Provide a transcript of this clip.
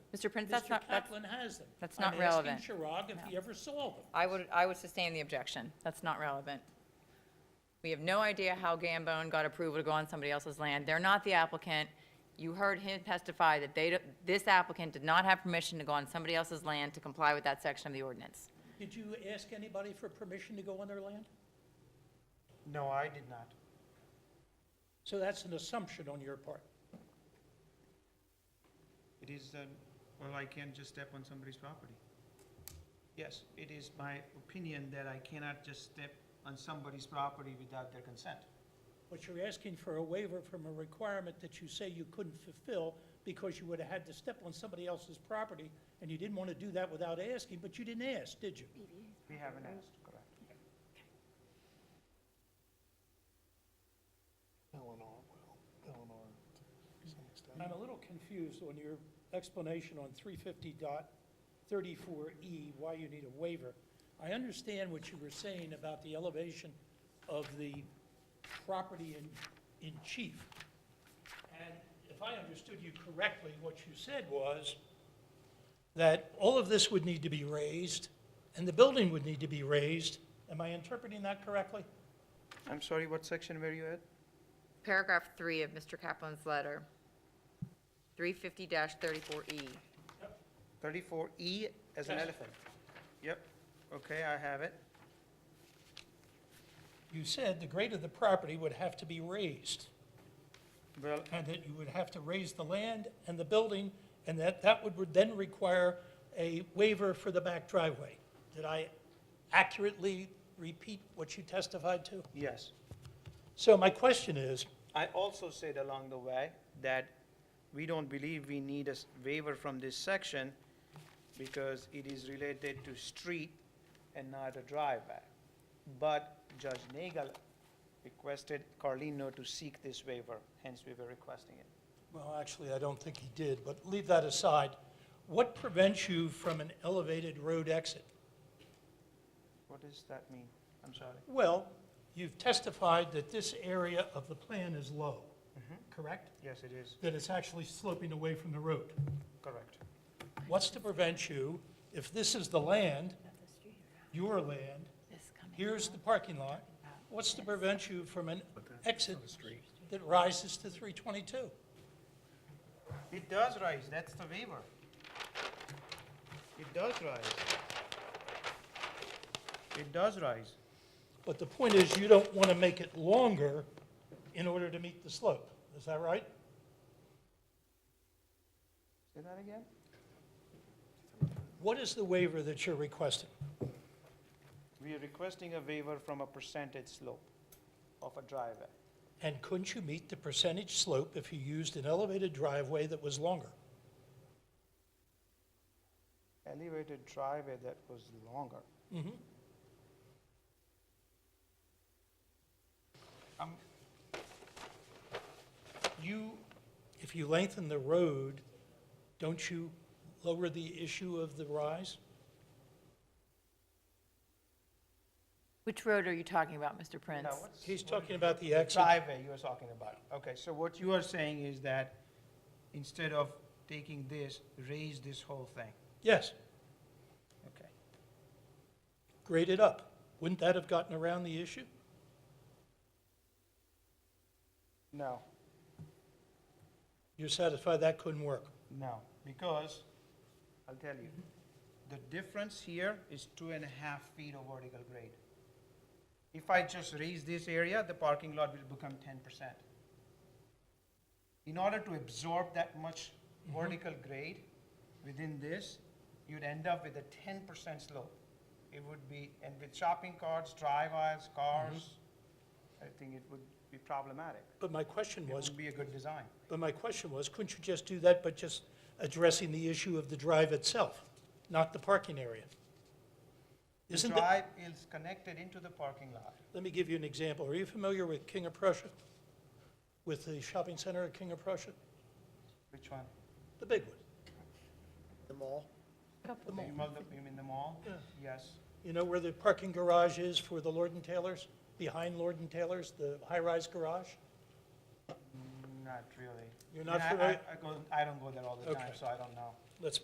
Mr. Prince, that's Mr. not, that's, Kaplan has them. that's not relevant. I'm asking Chirag if he ever saw them. I would, I would sustain the objection. That's not relevant. We have no idea how Gambone got approval to go on somebody else's land. They're not the applicant. You heard him testify that they, don't- this applicant did not have permission to go on somebody else's land to comply with that section of the ordinance. Did you ask anybody for permission to go on their land? No, I did not. So that's an assumption on your part. It is, uh, well, I can't just step on somebody's property. Yes, it is my opinion that I cannot just step on somebody's property without their consent. But you're asking for a waiver from a requirement that you say you couldn't fulfill because you would have had to step on somebody else's property, and you didn't want to do that without asking, but you didn't ask, did you? We haven't asked, correct? Eleanor will, Eleanor to some extent. I'm a little confused on your explanation on 350.34 E, why you need a waiver. I understand what you were saying about the elevation of the property in, in chief. And if I understood you correctly, what you said was that all of this would need to be raised, and the building would need to be raised. Am I interpreting that correctly? I'm sorry, what section were you at? Paragraph three of Mr. Kaplan's letter, 350-34E. Thirty-four E as an Yes. elephant? Yep, okay, I have it. You said the grade of the property would have to be raised. Well, and that you would have to raise the land and the building, and that that would then require a waiver for the back driveway. Did I accurately repeat what you testified to? yes. So my question is, I also said along the way that we don't believe we need a s- waiver from this section because it is related to street and not a driveway. But Judge Nagel requested Carlino to seek this waiver, hence we were requesting it. well, actually, I don't think he did, but leave that aside. What prevents you from an elevated road exit? What does that mean? I'm sorry. Well, you've testified that this area of the plan is low, correct? Yes, it is, That it's actually sloping away from the road. correct. What's to prevent you, if this is the land, your land, here's the parking lot, what's to prevent you from an exit that rises to 322? It does rise, that's the waiver. It does rise. It does rise. But the point is, you don't want to make it longer in order to meet the slope. Is that right? Say that again? What is the waiver that you're requesting? We are requesting a waiver from a percentage slope of a driveway. And couldn't you meet the percentage slope if you used an elevated driveway that was longer? Elevated driveway that was longer. Um, You, if you lengthen the road, don't you lower the issue of the rise? Which road are you talking about, Mr. Prince? now what's- He's talking about the exit. Driveway you are talking about. Okay, so what you are saying is that instead of taking this, raise this whole thing. Yes, Okay. grade it up. Wouldn't that have gotten around the issue? No, You're satisfied that couldn't work? no, because, I'll tell you, the difference here is two and a half feet of vertical grade. If I just raise this area, the parking lot will become ten percent. In order to absorb that much Mm-hmm. vertical grade within this, you'd end up with a ten percent slope. It would be, and with shopping carts, driveways, cars, I think it would be problematic. But my question It Mm-hmm. was, would be a good design. but my question was, couldn't you just do that by just addressing the issue of the drive itself, not the parking area? The Isn't that, drive is connected into the parking lot. let me give you an example. Are you familiar with King of Prussia? With the shopping center at King of Prussia? Which one? The big one? The mall? You mean the- You mean the mall? Yeah. Yes. You know where the parking garage is for the Lord and Taylor's? Behind Lord and Taylor's, the high-rise garage? Not really. You're I mean, not I- I- familiar? I go, I don't go there all the time, Okay. so I don't know. Let's